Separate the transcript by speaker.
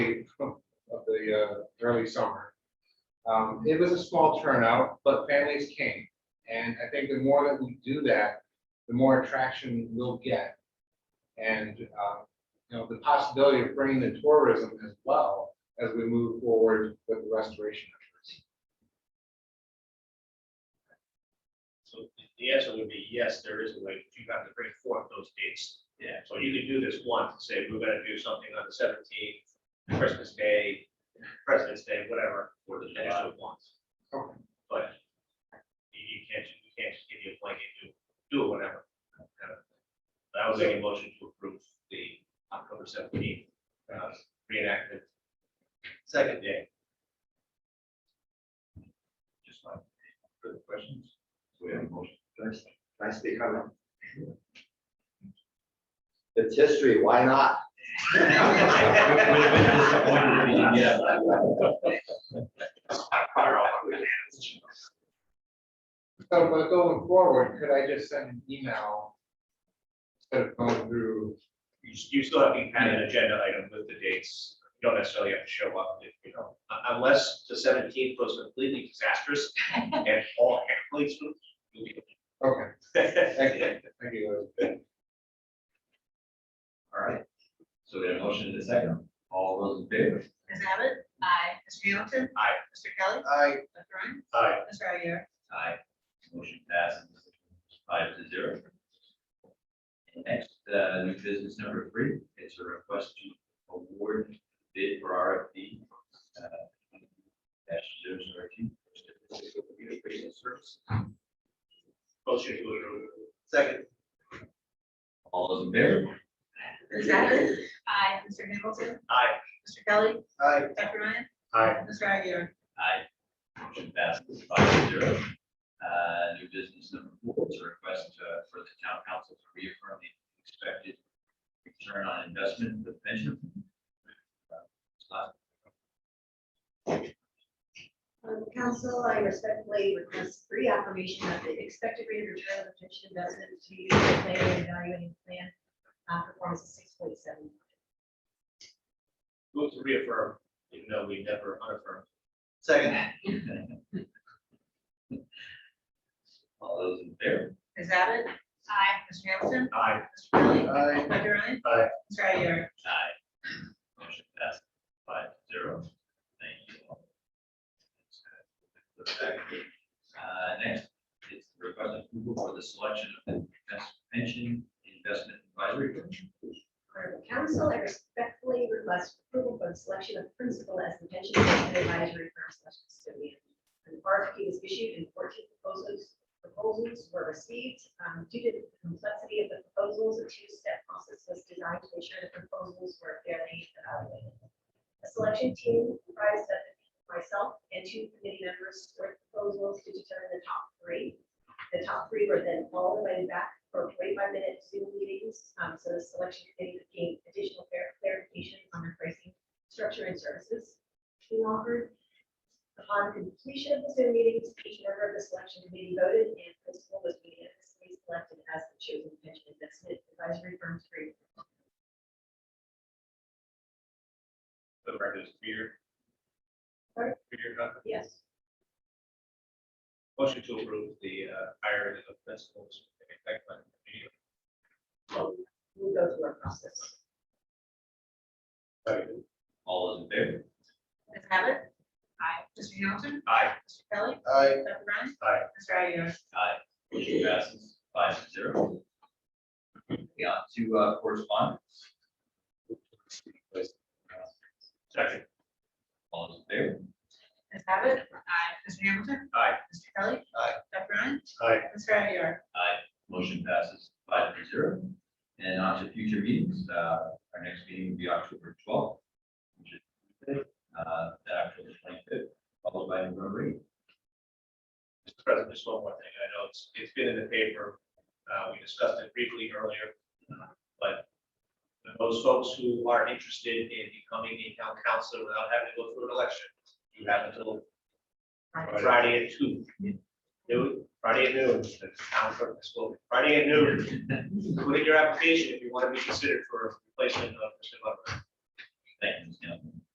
Speaker 1: of the uh, early summer. Um, It was a small turnout, but families came. And I think the more that we do that, the more attraction we'll get. And, uh, you know, the possibility of bringing the tourism as well as we move forward with the restoration. efforts.
Speaker 2: So the answer would be yes, there is a way, but you have to bring forth those dates. Yeah. So you can do this once, say, we're gonna do something on the seventeenth, Christmas Day, President's Day, whatever, or the next one once.
Speaker 1: Okay.
Speaker 2: But you you can't, you can't just give you a blanket, do, do it whenever. I was making a motion to approve the October seventeenth, uh, reenactment. Second day.
Speaker 3: Just like, further questions? So we have a motion. Can I speak on that? It's history, why not?
Speaker 1: So, but going forward, could I just send an email? Instead of going through,
Speaker 2: You, s- you still have to add an agenda item with the dates, you don't necessarily have to show up, if, you know, un- unless the seventeenth was completely disastrous and all athletes.
Speaker 1: okay,
Speaker 2: All
Speaker 1: excellent, thank you.
Speaker 3: All right. So we have a motion in a second. All those in favor?
Speaker 4: Ms. Abbott? Aye. Mr. Hamilton?
Speaker 2: Aye.
Speaker 4: Mr. Kelly?
Speaker 1: I,
Speaker 4: Dr. Ryan?
Speaker 2: right,
Speaker 4: Mr. Aguirre?
Speaker 3: Aye. Motion passes five to zero. Next, uh, new business number three is a request to award bid for RFP. uh, Dash zero zero two. Communication service.
Speaker 2: motion to approve.
Speaker 3: Second. All those in favor?
Speaker 4: Ms. Abbott? Aye. Mr. Hamilton?
Speaker 2: Aye.
Speaker 4: Mr. Kelly?
Speaker 2: Aye.
Speaker 4: Dr. Ryan?
Speaker 2: Aye.
Speaker 4: Mr. Aguirre?
Speaker 3: Aye. Motion passes five to zero. Uh, new business number four is a request uh, for the town council to reaffirm the expected return on investment of the pension. Uh,
Speaker 5: Um, Council, I respectfully request reaffirmation of the expected rate of return on the pension investment to use the plan and evaluating plan uh, performance of six point seven.
Speaker 2: Move to reaffirm, even though we never unaffirmed.
Speaker 3: Second. All those in favor?
Speaker 4: Ms. Abbott? Aye. Mr. Hamilton?
Speaker 2: Aye.
Speaker 4: Mr. Kelly?
Speaker 2: Aye.
Speaker 4: Dr. Ryan?
Speaker 2: Aye.
Speaker 4: Mr. Aguirre?
Speaker 3: Aye. Motion passes five to zero. Thank you all. Uh, next is the request approval for the selection of the best pension investment advisory. Board.
Speaker 5: Um, Council, I respectfully request approval for the selection of principal as the pension investment advisory firm slash custodian. An RFP was issued and fourteen proposals, proposals were received. Um, Due to the complexity of the proposals, a two-step process was designed to ensure the proposals were fairly evaluated. The selection team comprised of myself and two committee members scored proposals to determine the top three. The top three were then all invited back for forty-five minute Zoom meetings, um, so the selection committee could gain additional clar- clarification on the pricing, structure and services being offered. Upon completion of the Zoom meetings, each member of the selection committee voted and principal was unanimously selected as the chosen pension investment advisory firm to represent
Speaker 2: The record is clear.
Speaker 5: Sorry?
Speaker 2: Clear
Speaker 3: uh,
Speaker 2: cut.
Speaker 5: Yes.
Speaker 2: Motion to approve the uh, hiring of principals. effective immediately.
Speaker 5: We'll we'll go through our process.
Speaker 3: All those in favor?
Speaker 4: Ms. Abbott? Aye. Mr. Hamilton?
Speaker 2: Aye.
Speaker 4: Mr. Kelly?
Speaker 1: I.
Speaker 4: Dr. Ryan?
Speaker 2: Aye.
Speaker 4: Mr. Aguirre?
Speaker 3: Aye. Motion passes five to zero. Moving on to uh, correspondence.
Speaker 2: Second.
Speaker 3: All those in favor?
Speaker 4: Ms. Abbott? Aye. Mr. Hamilton?
Speaker 2: Aye.
Speaker 4: Mr. Kelly?
Speaker 3: Aye.
Speaker 4: Dr. Ryan?
Speaker 2: Aye.
Speaker 4: Mr. Aguirre?
Speaker 3: Aye. Motion passes five to zero. And on to future meetings. Uh, Our next meeting will be October twelfth. which is Tuesday, uh, Then October twenty-fifth, followed by November eighth.
Speaker 2: Mr. President, just one more thing. I know it's, it's been in the paper. Uh, we discussed it briefly earlier. But those folks who are interested in becoming a town council without having to go through an election, you have until Friday at two. Noon, Friday at noon, the town clerk is spoken. Friday at noon. Put in your application if you want to be considered for replacement of Mr. Butler.
Speaker 3: Thank you, Ms. Campbell.